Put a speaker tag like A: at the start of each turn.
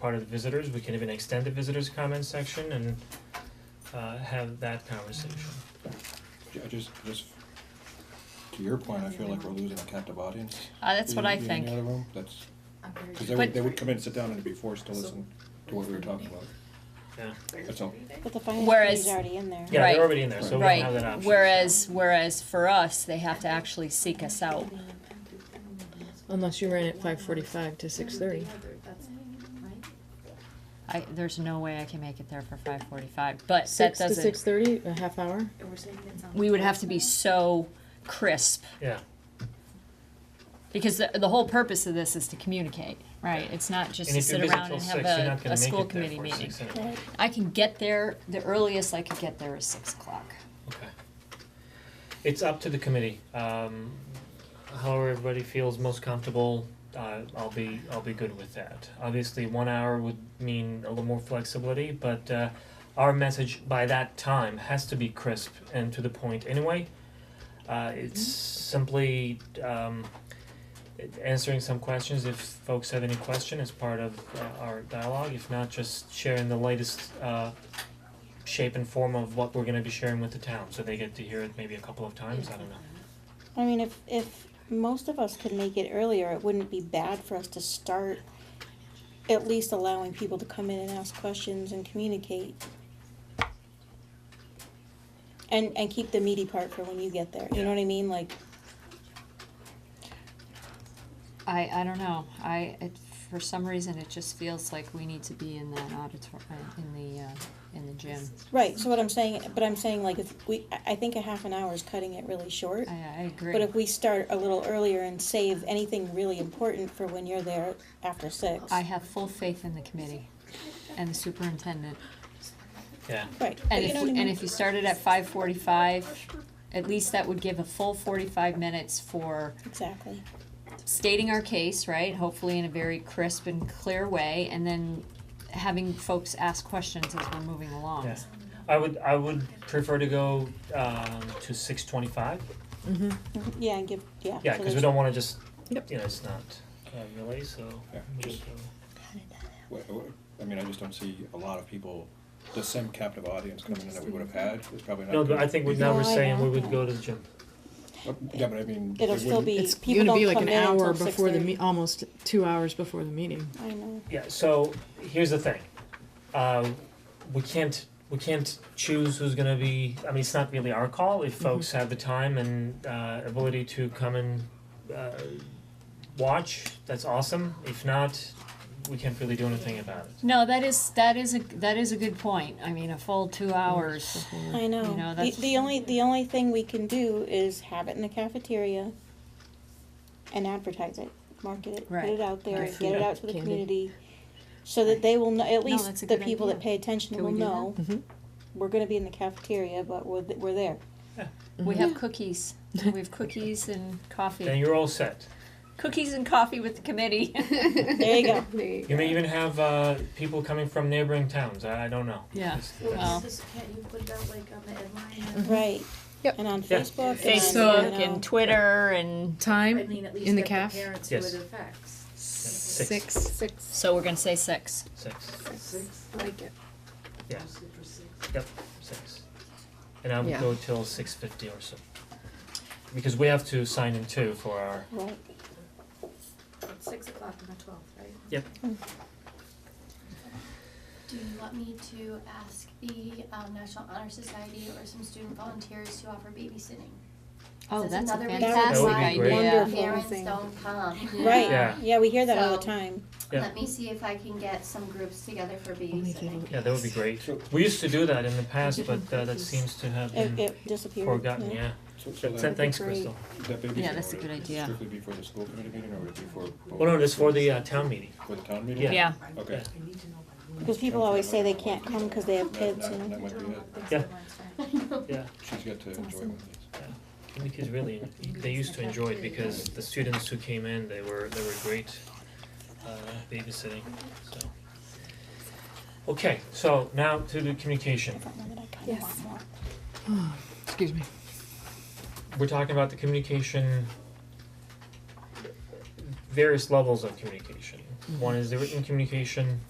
A: part of the visitors, we can even extend the visitors' comment section and uh have that conversation.
B: Yeah, just, just, to your point, I feel like we're losing a captive audience.
C: Uh, that's what I
B: in- in the
C: think.
B: other room. That's,
D: I'm very
B: cause they would,
C: But-
B: they would come in and sit down and be forced to listen to what we were talking about.
A: Yeah,
B: That's all.
E: But the finance
C: Whereas-
E: committee's already in there.
A: yeah,
C: Right.
A: they're already in there, so we don't have that
C: Right,
A: option.
C: whereas, whereas for us, they have to actually seek us out.
F: Unless you ran at five forty-five to six thirty.
C: I, there's no way I can make it there for five forty-five, but that
F: Six to six
C: doesn't,
F: thirty, a half hour?
C: we would have to be so crisp.
A: Yeah,
C: Because the, the whole purpose of this is to communicate, right? It's not just
A: and
C: to
A: if you're
C: sit
A: busy
C: around
A: till
C: and
A: six,
C: have
A: you're
C: a,
A: not
C: a
A: gonna make
C: school
A: it there
C: committee
A: for
C: meeting.
A: six anyway.
E: Right.
C: I can get there, the earliest I could get there is six o'clock.
A: Okay. It's up to the committee, um however everybody feels most comfortable, uh I'll be I'll be good with that. Obviously, one hour would mean a little more flexibility, but uh our message by that time has to be crisp and to the point anyway. Uh it's simply um answering some questions if folks have any question as part of uh, our dialogue, if not, just sharing the latest uh shape and form of what we're gonna be sharing with the town, so they get to hear it maybe a couple of times, I don't know.
E: I mean, if, if most of us could make it earlier, it wouldn't be bad for us to start at least allowing people to come in and ask questions and communicate. And, and keep the meaty part for when you get there, you know what I mean, like,
C: I, I don't know, I, it, for some reason, it just feels like we need to be in that auditor, in the, uh, in the gym.
E: right, so what I'm saying, but I'm saying like, if we, I, I think a half an hour is cutting it really short.
C: I, I agree.
E: But if we start a little earlier and save anything really important for when you're there after six.
C: I have full faith in the committee and the superintendent.
A: Yeah,
E: Right, but
C: And
E: you
C: if,
E: know what I
C: and
E: mean?
C: if you started at five forty-five, at least that would give a full forty-five minutes for
E: Exactly.
C: stating our case, right? Hopefully in a very crisp and clear way, and then having folks ask questions as we're moving along.
A: yeah. I would, I would prefer to go um to six twenty-five,
F: Mm-hmm.
E: Yeah, and give, yeah.
A: yeah,
E: so
A: cause we
E: there's-
A: don't wanna just, you know,
F: Yep.
A: it's not uh really, so.
B: Yeah,
A: we
B: just-
A: go-
B: Wha- wha- I mean, I just don't see a lot of people, the same captive audience coming in that we would have had, is probably not.
A: No, but
B: gonna
A: I think we
B: be-
A: now
E: No,
A: we're
E: I
A: saying we
E: don't.
A: would go to the gym,
B: But- Yeah, but I mean. they
E: It'll still
B: wouldn't-
E: be,
F: It's
E: people
F: gonna
E: don't
F: be like
E: come
F: an
E: in until
F: hour
E: six
F: before the
E: thirty.
F: me, almost two hours before the meeting.
E: I know,
A: yeah, so here's the thing. Uh we can't, we can't choose who's gonna be, I mean, it's not really our call,
C: Mm-hmm.
A: if folks have the time and uh ability to come and uh watch, that's awesome, if not, we can't really do anything about it.
C: No, that is, that is a, that is a good point. I mean, a full two hours.
E: I
C: know,
E: know. The,
C: that's-
E: the only, the only thing we can do is have it in the cafeteria and advertise it, market it, put
C: Right.
E: it out there,
C: Right.
E: get it out to the
F: Candy.
E: community. So that they will know, at
C: that's a
E: least the
C: good
E: people that
C: idea.
E: pay attention
C: Can
E: will
C: we do that? Mm-hmm.
E: know,
F: Mhm.
E: we're gonna be in the cafeteria, but we're, th- we're there.
C: We have
E: Mm-hmm.
C: cookies. We have cookies and
A: Then
C: coffee.
A: you're all set.
C: Cookies and coffee with the committee.
E: There you go.
A: You may even have uh people coming from neighboring towns, I I don't know. uh,
C: Yeah.
A: It's-
C: Well.
D: Well, Mm-hmm. this is- can't you put it out like on the headline? and-
E: Right.
F: Yep.
E: And on
A: Yeah.
E: Facebook.
C: Facebook
E: and, you know,
C: and Twitter and
D: I
F: Time,
D: mean, at least
F: In the
D: get
F: caf?
D: parents who
A: Yes.
D: it affects.
A: Six.
F: six.
C: so we're gonna say six.
A: Six,
D: Six,
G: like it.
A: Yeah.
D: mostly for six.
A: six. And I would
F: Yeah.
A: go till six fifty or so. Because we have to sign in too for our,
E: Right.
D: It's Six o'clock on the twelfth, right?
G: Do you want me to ask the um, National Honor Society or some student volunteers to offer babysitting?
C: Oh, that's a
G: another reason
C: fantastic
A: That would be great.
C: idea.
E: Wonderful.
G: Parents don't come.
E: Right.
A: Yeah.
E: Yeah, we hear that all the
G: So-
E: time.
A: Yeah.
G: Let me see if I can get some groups together for
F: give
G: babysitting.
A: yeah, that would be great.
B: So-
A: We used to do that in the past, but uh that seems to have
E: It,
A: been
E: it disappeared.
A: Mm-hmm. forgotten,
E: yeah.
A: yeah.
B: So, so
A: Th-
B: that,
A: Thanks,
E: great.
A: Crystal.
B: that baby.
C: Yeah, that's a good idea.
B: Strictly be for the school committee meeting or would it be for? both?
A: Well, no, it's for the uh town meeting.
B: For the town meeting?
A: Yeah.
C: Yeah.
B: Okay.
E: Because people always say they can't come because they have
B: That,
E: kids, you
B: that,
E: know.
B: that might be it.
A: Yeah. Yeah.
B: She's got to enjoy one of these.
A: I think kids really, they used to enjoy it because the students who came in, they were, they were great uh babysitting, so. Okay, so now to the communication.
E: Yes.
F: Excuse me.
A: We're talking about the communication, various levels of communication. One is the written communication,